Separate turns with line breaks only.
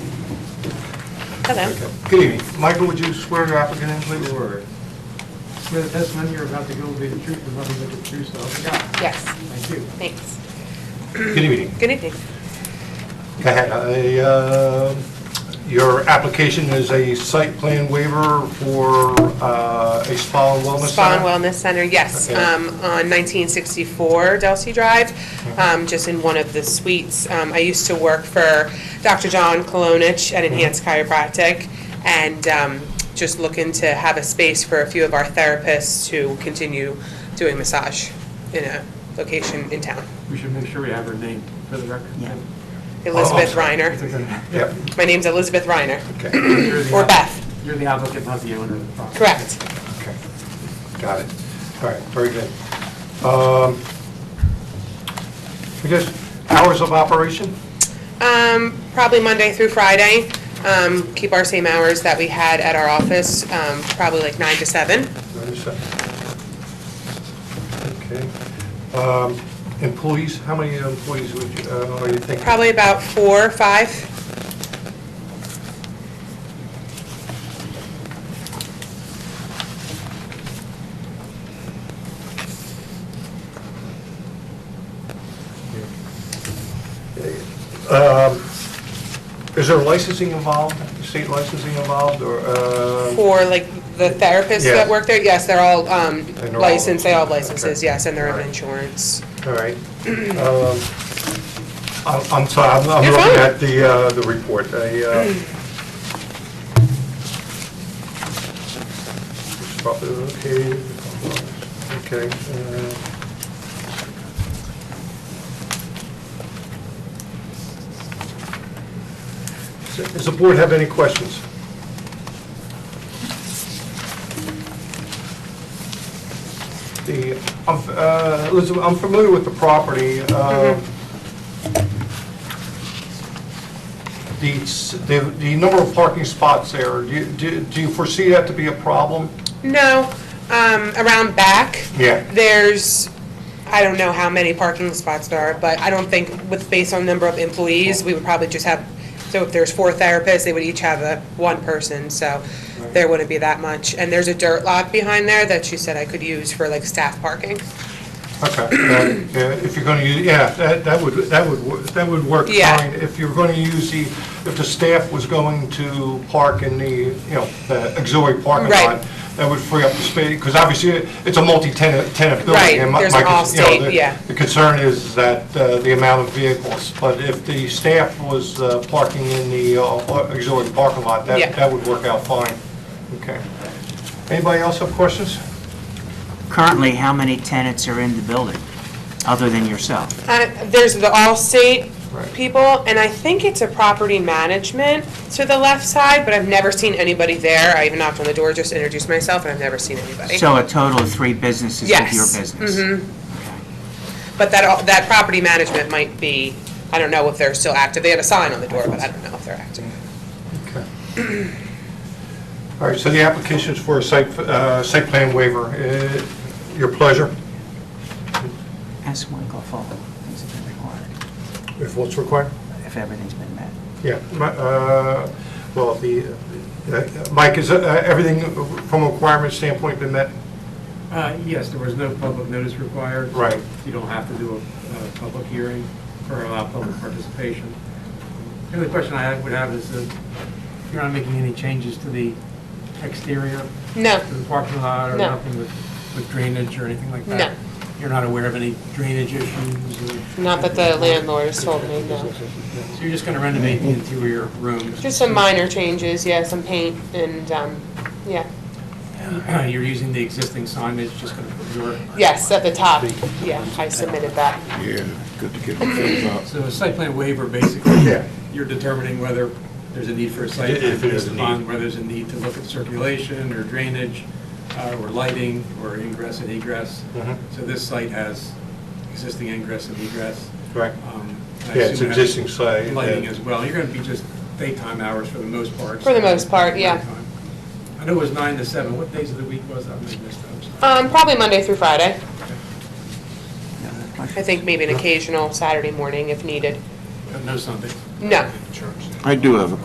Hello.
Okay. Good evening. Michael, would you swear your applicant in, please? Sure.
Swear the testimony you're about to give will be the truth, the nothing but the truth, so help you God.
Yes,
Thank you.
thanks.
Good evening.
Good evening.
Go ahead. I, uh, Your application is a site plan waiver for uh, a spa and wellness
Spa and
center?
Wellness Center, yes,
Okay.
um, on 1964 Delsey Drive, um, just in one of the suites. Um, I used to work for Dr. John Kolonich at Enhanced
Mm-hmm.
Chiropractic, and um, just looking to have a space for a few of our therapists to continue doing massage in a location in town.
We should make sure we have her name for the record.
Yeah.
Elizabeth
Oh, Oh, I'm
Reiner.
Yep,
My name's Elizabeth Reiner,
okay,
You're the
or
app-
Beth,
You're the applicant, not the owner of the property.
correct.
okay. Got it. All right, very good. Um, I guess, hours of operation?
Um, probably Monday through Friday. Um, keep our same hours that we had at our office, um, probably like nine to seven.
Understood. Okay. Um, Employees, how many employees would you, uh, are you thinking?
Probably about four, five.
Um, Is there licensing involved, state licensing involved, or? uh,
For like the therapists
Yeah.
that work there, yes, they're all, um,
they're all-
licensed, they all have licenses,
okay.
yes, and their own
Alright.
insurance.
All right. Um, I'm I'm sorry, I'm I'm
You're
looking
fine.
at the, uh, the report. I, uh, it's probably Okay, okay. uh, Does the board have any questions? The, I'm f- uh, Elizabeth, I'm familiar with the property. uh, The, s- the the number of parking spots there, do you- do do you foresee that to be a problem?
No, um, around back.
Yeah.
There's, I don't know how many parking spots there are, but I don't think with, based on number of employees, we would probably just have, so if there's four therapists, they would each have a, one person, so there wouldn't be that much. And there's a dirt lot behind there that she said I could use for like staff parking.
Okay, that- yeah, if you're going to use, yeah, that that would, that would, wor- that would work
Yeah.
fine. If you're going to use the, if the staff was going to park in the, you know, the auxiliary parking
Right.
lot, that would free up the space, because obviously it's a multi-tenant tenant building.
Right,
and my-
there's
my
an
cons- you know,
Allstate,
the-
yeah.
The concern is that uh, the amount of vehicles, but if the staff was uh, parking in the uh, auxiliary parking lot,
Yeah.
that that would work out fine. Okay. Anybody else have questions?
Currently, how many tenants are in the building, other than yourself?
Uh, There's the Allstate
Right.
people, and I think it's a property management to the left side, but I've never seen anybody there. I even knocked on the door, just introduced myself, and I've never seen anybody.
So a total of three businesses with your
Yes,
business?
But that, al- that property management might be, I don't know if they're still active. They had a sign on the door, but I don't know if they're active.
Okay. All right, so the application is for a site, uh, site plan waiver. Uh, Your pleasure,
Ask Michael if all things have been required,
if what's required?
if everything's been met.
Yeah, my- uh, well, the, uh, Mike, is uh, everything from a requirement standpoint been met?
Uh, Yes, there was no public notice required.
Right.
You don't have to do a, a public hearing or allow public participation. The only question I would have is that you're not making any changes to the exterior,
No,
to the parking lot or
No.
nothing with with drainage or anything like that?
No.
You're not aware of any drainage issues or?
not that the landlord has told me, no.
So you're just going to renovate the interior rooms?
Just some minor changes, yeah, some paint and, um, yeah.
You're using the existing signage, just going to put your,
Yes, at the top, yeah, I submitted that.
Yeah, good to get the things out.
so a site plan waiver, basically,
Yeah.
you're determining whether there's a need for a site
If it
plan
is
based
a need.
upon whether there's a need to look at circulation or drainage uh, or lighting or ingress and egress.
Mhm.
So this site has existing ingress and egress.
Right.
Um, I
Yeah, it's
assume it has
existing site.
Lighting as well. You're going to be just daytime hours for the most part.
For the most part, yeah.
Nighttime. I know it was nine to seven. What days of the week was that? I missed that. I'm sorry.
Um, probably Monday through Friday.
No other
I
questions?
think maybe an occasional Saturday morning if needed.
No Sunday.
No.
I do have a